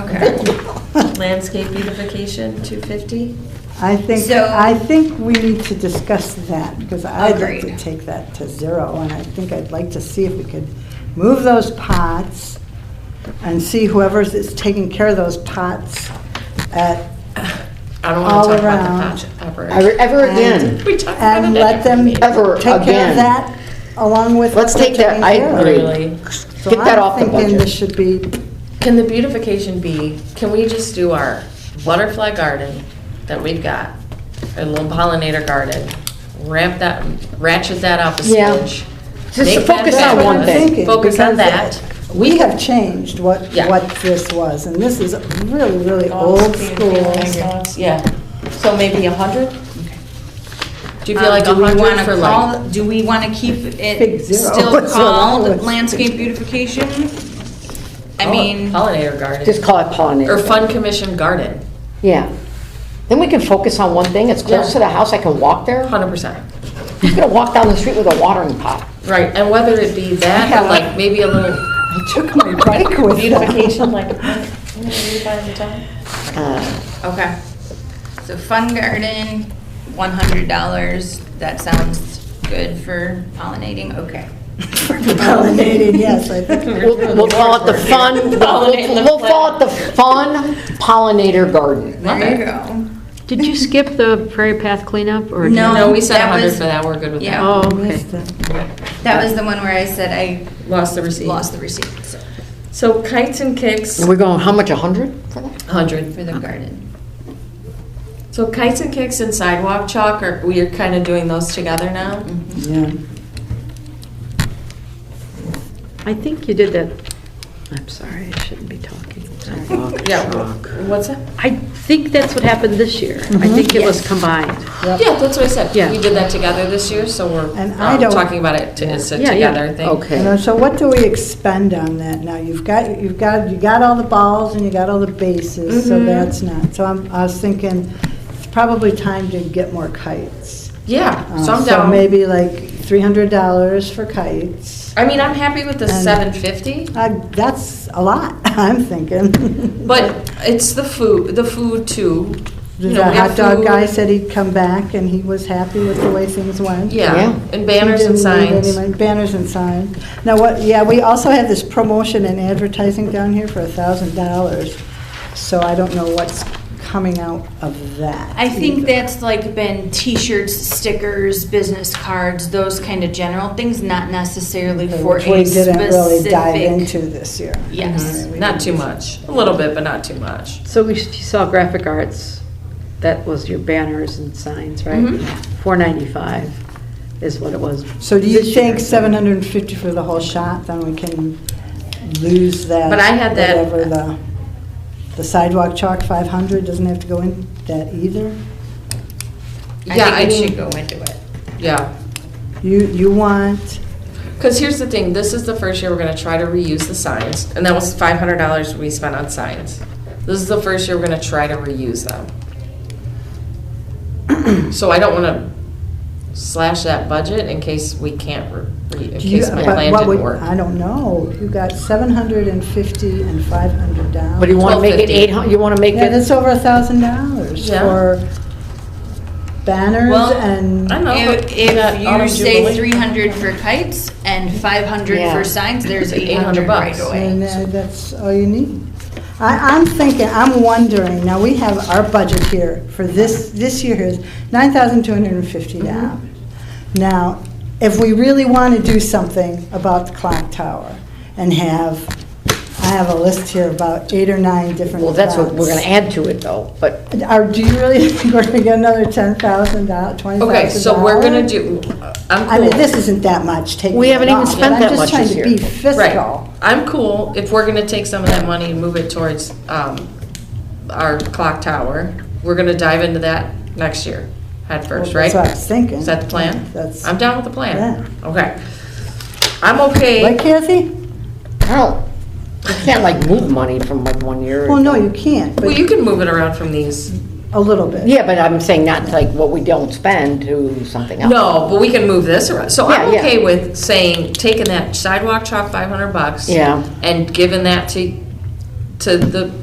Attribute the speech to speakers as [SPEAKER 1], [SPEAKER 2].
[SPEAKER 1] Okay. Landscape beautification, 250?
[SPEAKER 2] I think,
[SPEAKER 1] So-
[SPEAKER 2] I think we need to discuss that, because I'd like to
[SPEAKER 1] Agreed.
[SPEAKER 2] take that to zero, and I think I'd like to see if we could move those pots and see whoever's is taking care of those pots at,
[SPEAKER 1] I don't want
[SPEAKER 2] All
[SPEAKER 1] to talk
[SPEAKER 2] around.
[SPEAKER 1] about the patch operation.
[SPEAKER 3] Ever
[SPEAKER 2] And-
[SPEAKER 3] again,
[SPEAKER 1] We talked about it.
[SPEAKER 2] and
[SPEAKER 1] at
[SPEAKER 2] let them take
[SPEAKER 1] every meeting.
[SPEAKER 3] ever
[SPEAKER 2] care of
[SPEAKER 3] again.
[SPEAKER 2] that along with.
[SPEAKER 3] Let's
[SPEAKER 2] what
[SPEAKER 3] take
[SPEAKER 2] they're
[SPEAKER 3] that-
[SPEAKER 2] taking
[SPEAKER 3] I
[SPEAKER 2] care of.
[SPEAKER 3] agree.
[SPEAKER 1] Really.
[SPEAKER 2] So
[SPEAKER 3] Get that off the
[SPEAKER 2] I'm thinking
[SPEAKER 3] budget.
[SPEAKER 2] this should be,
[SPEAKER 1] Can the beautification be, can we just do our butterfly garden that we've got, our little pollinator garden, ramp that, ratchet that up a
[SPEAKER 3] Yeah.
[SPEAKER 1] smidge?
[SPEAKER 3] Just
[SPEAKER 1] make that
[SPEAKER 3] focus on
[SPEAKER 1] fabulous,
[SPEAKER 3] one thing.
[SPEAKER 2] Thinking,
[SPEAKER 1] Focus on
[SPEAKER 2] because
[SPEAKER 1] that.
[SPEAKER 2] we have changed what,
[SPEAKER 1] Yeah.
[SPEAKER 2] what this was, and this is really, really old school.
[SPEAKER 1] Yeah, so maybe a hundred? Do you feel
[SPEAKER 4] Um,
[SPEAKER 1] like
[SPEAKER 4] do
[SPEAKER 1] a
[SPEAKER 4] we
[SPEAKER 1] hundred
[SPEAKER 4] wanna
[SPEAKER 1] for
[SPEAKER 4] call-
[SPEAKER 1] like?
[SPEAKER 4] Do we want to keep
[SPEAKER 2] Big
[SPEAKER 4] it
[SPEAKER 2] zero.
[SPEAKER 4] still
[SPEAKER 2] That's what I
[SPEAKER 4] called
[SPEAKER 2] was-
[SPEAKER 4] landscape beautification? I
[SPEAKER 1] poll-
[SPEAKER 4] mean,
[SPEAKER 1] oh, Pollinator garden,
[SPEAKER 3] just call it
[SPEAKER 1] or
[SPEAKER 3] pollinator.
[SPEAKER 1] fun commission garden,
[SPEAKER 3] Yeah. Then we can focus on one thing, it's close to the house, I can walk there.
[SPEAKER 1] hundred percent.
[SPEAKER 3] Who's gonna walk down the street with a watering pot?
[SPEAKER 1] Right, and whether it be that or like maybe a little
[SPEAKER 2] I took my break with that.
[SPEAKER 1] beautification, like, when do you find the time? Uh,
[SPEAKER 4] okay. So fun garden, one hundred dollars, that sounds good for pollinating, okay.
[SPEAKER 2] Pollinated, yes, I think.
[SPEAKER 3] We'll we'll call it the fun, we'll we'll call it the fun pollinator garden.
[SPEAKER 4] There you go.
[SPEAKER 5] Did you skip the Prairie Path cleanup, or? did-
[SPEAKER 4] No,
[SPEAKER 1] No,
[SPEAKER 2] Um,
[SPEAKER 1] we said
[SPEAKER 4] that
[SPEAKER 1] 100
[SPEAKER 4] was-
[SPEAKER 1] for that, we're good with that.
[SPEAKER 4] Yeah.
[SPEAKER 5] Oh, okay.
[SPEAKER 2] Missed it.
[SPEAKER 4] That was the one where I said I
[SPEAKER 1] Lost the receipt.
[SPEAKER 4] lost the receipt, so,
[SPEAKER 1] So kites and kicks,
[SPEAKER 3] We're going, how much, a hundred for that?
[SPEAKER 1] 100.
[SPEAKER 4] for the garden.
[SPEAKER 1] So kites and kicks and sidewalk chalk, are, we are kind of doing those together now?
[SPEAKER 2] Mm-hmm. Yeah.
[SPEAKER 5] I think you did that, I'm sorry, I shouldn't be talking.
[SPEAKER 1] Yeah. What's that?
[SPEAKER 5] I think that's what happened this year. I think it was combined.
[SPEAKER 1] Yeah, that's what I said.
[SPEAKER 5] Yeah.
[SPEAKER 1] We did that together this year, so we're
[SPEAKER 2] And I
[SPEAKER 1] um,
[SPEAKER 2] don't-
[SPEAKER 1] talking about it to- it's a
[SPEAKER 5] Yeah, yeah.
[SPEAKER 1] together thing.
[SPEAKER 2] You know,
[SPEAKER 3] Okay.
[SPEAKER 2] so what do we expend on that now? You've got, you've got, you got all the balls and you got all the bases, so that's not. So I'm, I was thinking, it's probably time to get more kites.
[SPEAKER 1] Yeah,
[SPEAKER 2] Uh,
[SPEAKER 1] so I'm
[SPEAKER 2] So
[SPEAKER 1] down.
[SPEAKER 2] maybe like three hundred dollars for kites.
[SPEAKER 1] I mean, I'm happy with the
[SPEAKER 2] And-
[SPEAKER 1] 750,
[SPEAKER 2] Uh, That's a lot, I'm thinking.
[SPEAKER 1] but it's the food, the food too. You know,
[SPEAKER 2] The
[SPEAKER 1] we
[SPEAKER 2] hot
[SPEAKER 1] have
[SPEAKER 2] dog
[SPEAKER 1] food.
[SPEAKER 2] guy said he'd come back and he was happy with the way things went.
[SPEAKER 1] Yeah,
[SPEAKER 3] Yeah.
[SPEAKER 1] and banners
[SPEAKER 2] We
[SPEAKER 1] and
[SPEAKER 2] didn't need
[SPEAKER 1] signs.
[SPEAKER 2] any money. Banners and signs. Now, what, yeah, we also have this promotion and advertising down here for a thousand dollars, so I don't know what's coming out of that.
[SPEAKER 4] I think
[SPEAKER 2] either.
[SPEAKER 4] that's like been t-shirts, stickers, business cards, those kind of general things, not necessarily for a
[SPEAKER 2] Which we
[SPEAKER 4] specific.
[SPEAKER 2] didn't really dive into this year.
[SPEAKER 4] Yes.
[SPEAKER 1] Not too much, a little bit, but not too much.
[SPEAKER 5] So we s- you saw graphic arts, that was your banners and signs, right? Four ninety-five is what it was.
[SPEAKER 2] So do you
[SPEAKER 5] this year.
[SPEAKER 2] think seven hundred and fifty for the whole shot, then we can lose that?
[SPEAKER 1] But I had that-
[SPEAKER 2] Whatever the, the sidewalk chalk five hundred doesn't have to go in that either?
[SPEAKER 1] Yeah, I
[SPEAKER 4] I think it should
[SPEAKER 1] mean,
[SPEAKER 4] go into it.
[SPEAKER 1] yeah.
[SPEAKER 2] You, you want,
[SPEAKER 1] Because here's the thing, this is the first year we're gonna try to reuse the signs, and that was five hundred dollars we spent on signs. This is the first year we're gonna try to reuse them. So I don't wanna slash that budget in case we can't, re- re- in
[SPEAKER 2] do you,
[SPEAKER 1] case my
[SPEAKER 2] but
[SPEAKER 1] plan
[SPEAKER 2] what would,
[SPEAKER 1] didn't work.
[SPEAKER 2] I don't know, you got seven hundred and fifty and five hundred dollars.
[SPEAKER 3] But you wanna make it
[SPEAKER 1] 1250.
[SPEAKER 3] eight hun, you wanna make
[SPEAKER 2] Yeah,
[SPEAKER 3] it,
[SPEAKER 2] that's over a thousand dollars
[SPEAKER 1] Yeah.
[SPEAKER 2] for banners
[SPEAKER 4] Well,
[SPEAKER 2] and.
[SPEAKER 1] I know, but
[SPEAKER 4] If
[SPEAKER 1] we got
[SPEAKER 4] if you
[SPEAKER 1] Autumn
[SPEAKER 4] say
[SPEAKER 1] Jubilee.
[SPEAKER 4] three hundred for kites and five hundred
[SPEAKER 3] Yeah.
[SPEAKER 4] for signs, there's
[SPEAKER 1] It's
[SPEAKER 4] eight hundred
[SPEAKER 1] 800
[SPEAKER 4] right
[SPEAKER 1] bucks.
[SPEAKER 2] And
[SPEAKER 4] away.
[SPEAKER 2] uh, that's all you need. I, I'm thinking, I'm wondering, now we have our budget here for this, this year is nine thousand two hundred and fifty dollars. Now, if we really want to do something about the clock tower and have, I have a list here about eight or nine different.
[SPEAKER 3] well, that's what we're gonna
[SPEAKER 2] events.
[SPEAKER 3] add to it though, but
[SPEAKER 2] Are, do you really think we're gonna get another ten thousand dollars, twenty thousand dollars?
[SPEAKER 1] Okay, so we're gonna do, I'm cool.
[SPEAKER 2] I mean, this isn't that much taking.
[SPEAKER 3] We haven't
[SPEAKER 2] it
[SPEAKER 3] even
[SPEAKER 2] off, but
[SPEAKER 3] spent that much
[SPEAKER 2] I'm
[SPEAKER 3] this
[SPEAKER 2] just trying
[SPEAKER 3] year.
[SPEAKER 2] to be
[SPEAKER 1] Right.
[SPEAKER 2] fiscal.
[SPEAKER 1] I'm cool if we're gonna take some of that money and move it towards, um, our clock tower. We're gonna dive into that next year, head first,
[SPEAKER 2] Well,
[SPEAKER 1] right?
[SPEAKER 2] That's what I was thinking.
[SPEAKER 1] Is that the plan?
[SPEAKER 2] That's,
[SPEAKER 1] I'm down with the plan.
[SPEAKER 2] Yeah.
[SPEAKER 1] Okay. I'm
[SPEAKER 2] right,
[SPEAKER 1] okay.
[SPEAKER 2] Kathy?
[SPEAKER 3] hell, you can't like move money from like one year.
[SPEAKER 2] Well, no, you can't,
[SPEAKER 1] Well,
[SPEAKER 2] but
[SPEAKER 1] you can move it around from these.
[SPEAKER 2] a little bit.
[SPEAKER 3] Yeah, but I'm saying not like what we don't spend to something else.
[SPEAKER 1] No, but we can move this around. So I'm
[SPEAKER 3] Yeah, yeah.
[SPEAKER 1] okay with saying, taking that sidewalk chalk five hundred bucks.
[SPEAKER 3] Yeah.
[SPEAKER 1] And giving that to, to the